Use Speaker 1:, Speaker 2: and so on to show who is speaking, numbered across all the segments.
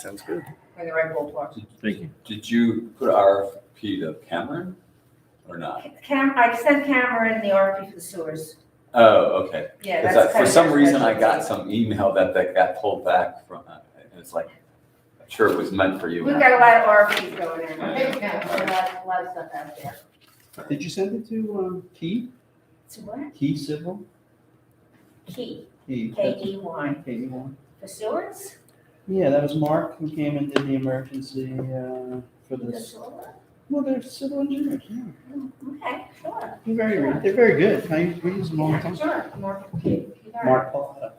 Speaker 1: Sounds good.
Speaker 2: in the right ballpark.
Speaker 3: Thank you.
Speaker 4: Did you put RFP to Cameron or not?
Speaker 2: Cam, I sent Cameron the RFP for the sewers.
Speaker 4: Oh, okay.
Speaker 2: Yeah,
Speaker 4: It's
Speaker 2: that's.
Speaker 4: like, for
Speaker 2: kind of
Speaker 4: some
Speaker 2: their
Speaker 4: reason, I got
Speaker 2: specialty.
Speaker 4: some email that, that got pulled back from, uh, and it's like, I'm sure it was meant for you.
Speaker 2: We've got a lot of RFPs going in.
Speaker 4: Yeah.
Speaker 2: Yeah, a lot, a lot of stuff out there.
Speaker 3: Did you send it to, um, Key,
Speaker 2: So what?
Speaker 3: Key Civil?
Speaker 2: Key,
Speaker 3: Key.
Speaker 2: K E Y,
Speaker 3: Key one.
Speaker 2: for sewers?
Speaker 3: Yeah, that was Mark who came and did the emergency, uh, for
Speaker 2: The
Speaker 3: this.
Speaker 2: sewer?
Speaker 3: Well, they're civil engineers, yeah.
Speaker 2: Okay, sure.
Speaker 3: They're very, they're very good. I, we use them all the
Speaker 2: Yeah,
Speaker 3: time.
Speaker 2: Sure, more.
Speaker 3: Mark Pallotta.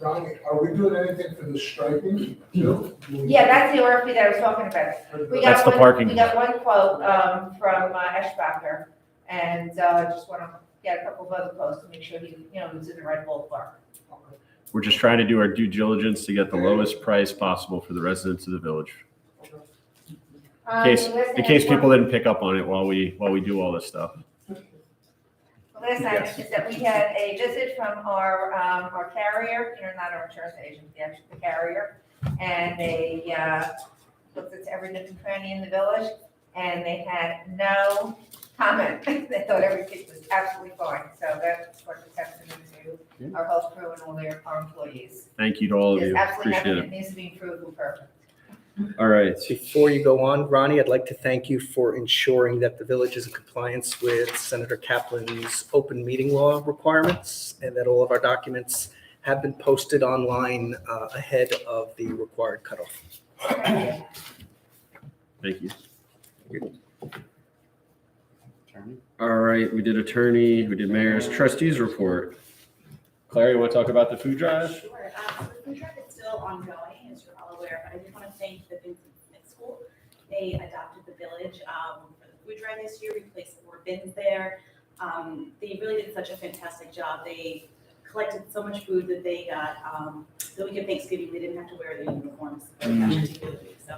Speaker 5: Ronnie, are we doing anything for the striping?
Speaker 6: Mm.
Speaker 5: too?
Speaker 2: Yeah, that's the RFP that I was talking about. We
Speaker 1: That's
Speaker 2: got
Speaker 1: the
Speaker 2: one-
Speaker 1: parking.
Speaker 2: We got one quote, um, from uh, Eschbacher, and, uh, just wanna get a couple of other quotes to make sure he, you know, he's in the right ballpark.
Speaker 1: We're just trying to do our due diligence to get the lowest price possible for the residents of the village.
Speaker 2: Um,
Speaker 1: case-
Speaker 2: last
Speaker 1: In
Speaker 2: thing I
Speaker 1: case people
Speaker 2: want-
Speaker 1: didn't pick up on it while we, while we do all this stuff.
Speaker 2: the Last item is that we had a visit from our, um, our carrier, you know, not our insurance agent, the actual the carrier, and they, uh, looked at every nook and cranny in the village, and they had no comment. They thought everything was absolutely fine, so that's what the testament to our whole crew and all their, our employees.
Speaker 1: Thank you to all of
Speaker 2: There's
Speaker 1: you.
Speaker 2: absolutely
Speaker 1: Appreciate
Speaker 2: nothing
Speaker 1: it.
Speaker 2: that needs to be improved or perfect.
Speaker 1: All right.
Speaker 6: Before you go on, Ronnie, I'd like to thank you for ensuring that the village is in compliance with Senator Kaplan's open meeting law requirements and that all of our documents have been posted online uh, ahead of the required cutoff.
Speaker 1: Thank you. All right, we did attorney, we did mayor's trustees report. Clary, you want to talk about the food drive?
Speaker 7: Sure. Um, so the food drive is still ongoing, as you're all aware, but I just want to thank the Vincent Smith School. They adopted the village, um, for the food drive this year, We placed four bins there. Um, they really did such a fantastic job. They collected so much food that they got, um, the week of Thanksgiving, they didn't have to wear their uniforms. for that particular week. So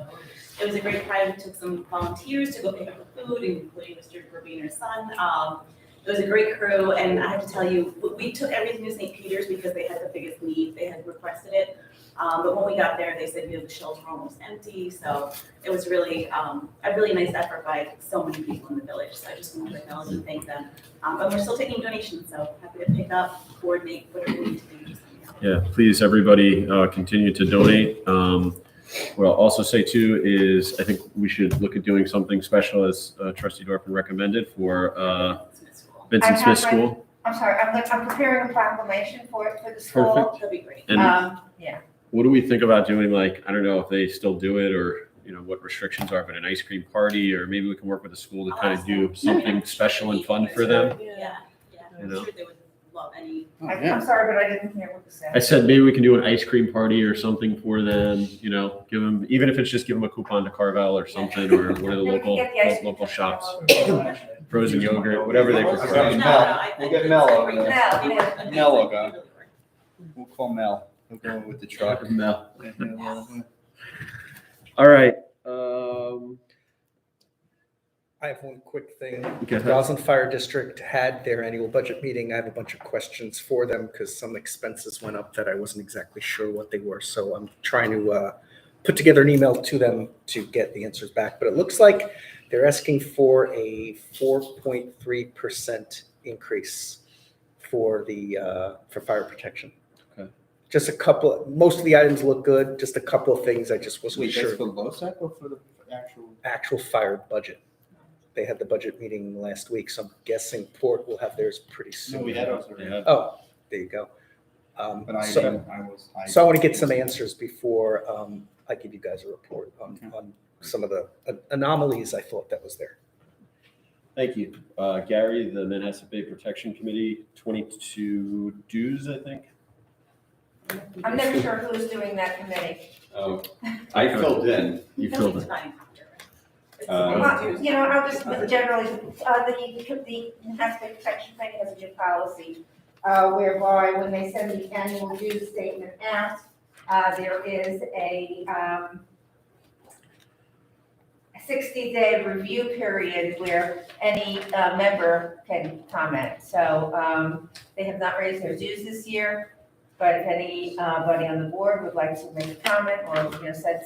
Speaker 7: it was a great time. It took some volunteers to go pick up the food, including Mr. Robiner's son. Um, it was a great crew, and I have to tell you, we- we took everything to St. Peter's because they had the biggest need, they had requested it. Um, but when we got there, they said, you know, the shelves were almost empty, so it was really, um, a really nice effort by so many people in the village, so I just wanted to acknowledge and thank them. Um, but we're still taking donations, so happy to pick up, coordinate, whatever we need to do, just let me know.
Speaker 1: Yeah, please, everybody, uh, continue to donate. Um, what I'll also say too is I think we should look at doing something special as uh, trustee Dorfman recommended for, uh,
Speaker 7: It's in school.
Speaker 1: Vincent
Speaker 2: I
Speaker 1: Smith
Speaker 2: have my-
Speaker 1: School.
Speaker 2: I'm sorry, I'm, look- I'm preparing a proclamation for it for the school.
Speaker 7: That'd be great.
Speaker 1: And
Speaker 2: Um, yeah,
Speaker 1: what do we think about doing like i don't know if they still do it or you know what restrictions are but an ice cream party or maybe we can work with the school to
Speaker 7: I'll
Speaker 1: kind of
Speaker 7: ask
Speaker 1: do
Speaker 7: them.
Speaker 1: something special and fun for them
Speaker 7: Yeah, yeah,
Speaker 1: You
Speaker 7: I'm
Speaker 1: know.
Speaker 7: sure they would love any
Speaker 3: Oh,
Speaker 2: I-
Speaker 3: yeah.
Speaker 2: I'm sorry, but I didn't hear what you said.
Speaker 1: i said maybe we can do an ice cream party or something for them you know give them even if it's just give them a coupon to carvel or something or one of
Speaker 2: Then we
Speaker 1: the
Speaker 2: can
Speaker 1: local
Speaker 2: get the ice cream
Speaker 1: local
Speaker 2: truck
Speaker 1: shops
Speaker 2: all over.
Speaker 1: frozen yogurt whatever they
Speaker 7: No,
Speaker 3: Okay.
Speaker 1: prefer
Speaker 7: no,
Speaker 3: Mel.
Speaker 7: I-
Speaker 3: We'll
Speaker 7: I-
Speaker 3: get Mel over there.
Speaker 2: Mel,
Speaker 7: Yeah.
Speaker 3: Mel will go. We'll call Mel. He'll go with the truck.
Speaker 1: No.
Speaker 3: I
Speaker 1: all right um
Speaker 6: I have one quick thing.
Speaker 1: go ahead.
Speaker 6: Roslyn Fire District had their annual budget meeting. I have a bunch of questions for them because some expenses went up that I wasn't exactly sure what they were. So I'm trying to uh, put together an email to them to get the answers back. But it looks like they're asking for a 4.3% increase for the, uh, for fire protection.
Speaker 1: Okay.
Speaker 6: Just a couple, most of the items look good, just a couple of things I just wasn't
Speaker 3: Wait,
Speaker 6: sure.
Speaker 3: that's for LoSAP or for the actual?
Speaker 6: actual fire budget. They had the budget meeting last week, so I'm guessing Port will have theirs pretty soon.
Speaker 3: ours
Speaker 1: Yeah.
Speaker 6: Oh, there you go. Um,
Speaker 3: But I
Speaker 6: so,
Speaker 3: didn't, I was.
Speaker 6: so I want to get some answers before, um, I give you guys a report on,
Speaker 3: Okay.
Speaker 6: on some of the an- anomalies I thought that was there.
Speaker 1: Thank you. Uh, Gary, the Manhasset Bay Protection Committee, 22 dues, I think.
Speaker 2: I'm never sure who's doing that committee.
Speaker 4: Oh, I filled in.
Speaker 1: You filled it.
Speaker 4: Um,
Speaker 2: Well, You know, I'll just generally, uh, the, the Enhancement Protection Plan has a new policy, uh, whereby when they send the annual dues statement out, uh, there is a, um, sixty-day review period where any, uh, member can comment. So, um, they have not raised their dues this year. But if anybody on the board would like to make a comment or, you know, said